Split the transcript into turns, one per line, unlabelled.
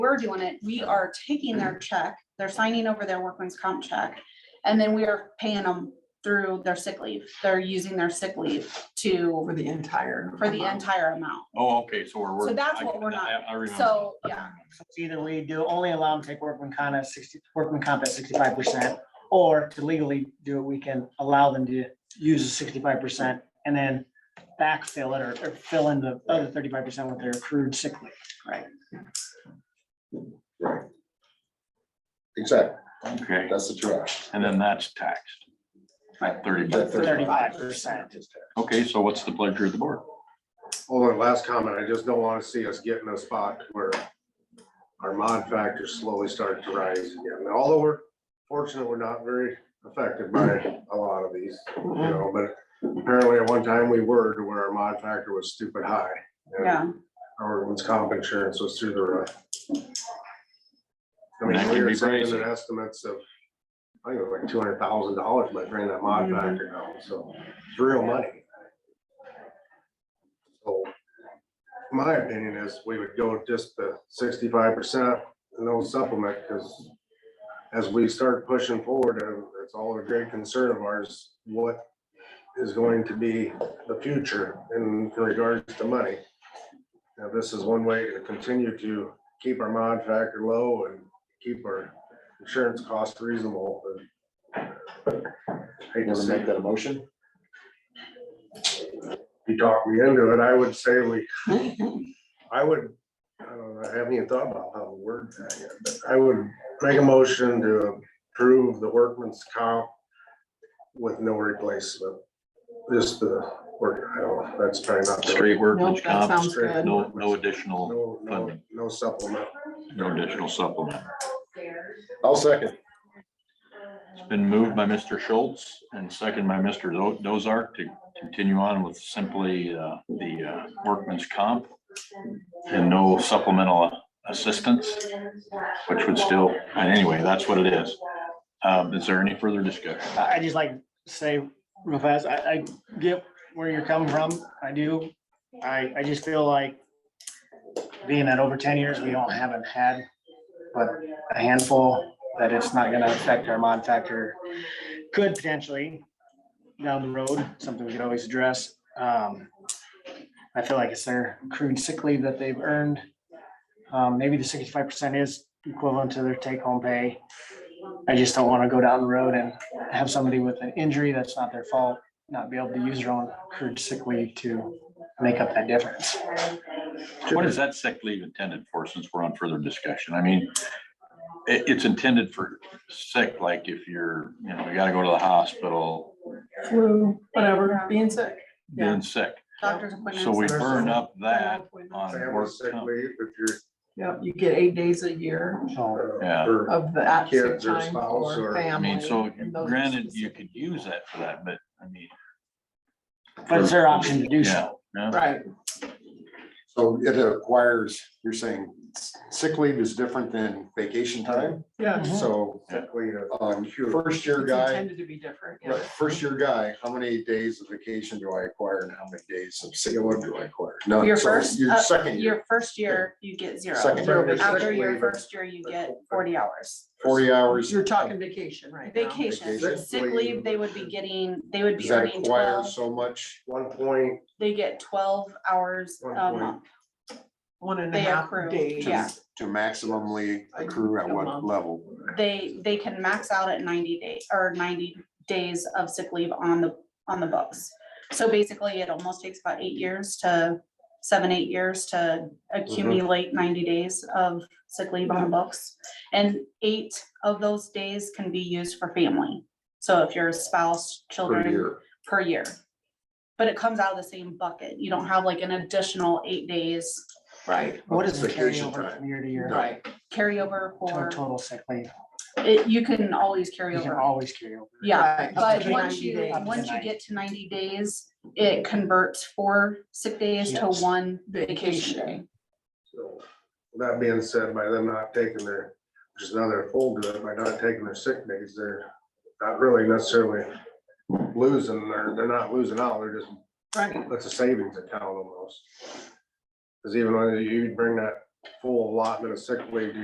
we're doing it, we are taking their check, they're signing over their workman's comp check. And then we are paying them through their sick leave. They're using their sick leave to,
For the entire.
for the
amount.
entire amount.
Oh, okay, so we're.
So
we're-
that's
I-
what we're
I-
not-
I remember.
So, yeah,
So it's Either we do only allow them to take workman comp at sixty, workman comp at sixty-five percent, or to legally do it, we can allow them to use the sixty-five percent and then backfill it or, or fill in the other thirty-five percent with their accrued sick leave.
Right. Exactly,
Okay,
that's the trash.
and then that's taxed. At thirty.
That
Thirty-five percent.
Okay, so what's the pleasure of the board?
Hold on, last comment. I just don't want to see us get in a spot where our mod factors slowly start to rise again. Although we're fortunate, we're not very affected by a lot of these, you know, but apparently at one time we were to where our mod factor was stupid high. and
yeah.
Our workman's comp insurance was through the roof. I
That
mean,
can
we
be
were sitting
crazy.
at estimates of, I think it was like two hundred thousand dollars by bringing that mod
Mhm.
factor down, so it's real money. So, my opinion is we would go with just the sixty-five percent and no supplement, because as we start pushing forward, uh, it's all a great concern of ours, what is going to be the future in regards to money. Now, this is one way to continue to keep our mod factor low and keep our insurance costs reasonable. but- Hate to
Want to
say,
make that a motion?
you talked me into it, I would say we, I would, I don't know, I haven't even thought about how to word that yet, but I would make a motion to approve the workman's comp with no replacement, just the work, I don't, know, that's probably not. the-
Straight
Nope,
workman's
that
comp,
sounds good.
no, no additional,
No, no, no supplement.
no additional supplement.
I'll second.
It's been moved by Mr. Schultz and second by Mr. Do- Dozark to continue on with simply uh, the uh, workman's comp and no supplemental assistance, which would still, anyway, that's what it is. Um, Is there any further discussion?
I, I just like to say real fast, I, I get where you're coming from, I do. I, I just feel like being at over ten years, we don't haven't had but a handful that it's not gonna affect our mod factor. Could potentially down the road, something we could always address. Um, I feel like it's their accrued sick leave that they've earned. Um, maybe the sixty-five percent is equivalent to their take-home pay. I just don't wanna go down the road and have somebody with an injury that's not their fault, not be able to use their own accrued sick leave to make up that difference.
What is that sick leave intended for, since we're on further discussion? I mean, it, it's intended for sick, like if you're, you know, you gotta go to the hospital,
Flu, whatever, being sick. Yeah.
being sick.
Doctor's appointments.
So we
and-
burn up that on
Family
work
sick
comp.
leave if you're.
Yep, you get eight days a year
So.
uh,
Yeah.
for-
of the at sick
Kids or
time
spouse
for
or-
family.
I mean, so
and those are
granted, you
specific.
could use that for that, but I mean.
But it's their option to do so.
Yeah, yeah.
Right,
So it acquires, you're saying sick leave is different than vacation time,
yeah.
Mhm.
so
sick leave is
um,
huge.
first year
It's
guy,
Intended to be different. yeah.
right, first year guy, how many days of vacation do I acquire and how many days of sick leave do I acquire? None.
Your
So
first,
Your
uh,
second year,
Your first year, you get zero.
Second
year, it's
After
sick
your
leave.
first year, you get forty hours.
forty hours,
You're talking vacation right now.
Vacation,
Vacation.
sick leave, they would be getting, they would
does
be
that
earning
acquire
twelve,
so much?
One point,
they get twelve hours
One
a
point.
month.
One and a
They
half
accrue,
days.
yeah.
To maximally accrue at what level?
They, they can max out at ninety days, or ninety days of sick leave on the, on the books. So basically, it almost takes about eight years to, seven, eight years to accumulate ninety days of sick leave on the books. And eight of those days can be used for family. So if you're a spouse,
Per
children,
year,
per year. But it comes out of the same bucket. You don't have like an additional eight days
Right,
What is the
Vacation
carryover
time.
from year to year?
right.
carryover
To a
for,
Total sick leave.
it, you can always carry
You can
over.
always carry over.
Yeah,
right, up
but
to
once
90
you,
days.
Up to
once you
90.
get to ninety days, it converts four sick days to
Yes.
one vacation
Vacation.
day.
so that being said, by them not taking their, which is another full to it, by not taking their sick days, they're not really necessarily losing, they're, they're not losing out, they're just
Right,
That's a savings account almost. Cause even when you bring that full allotment of sick leave, do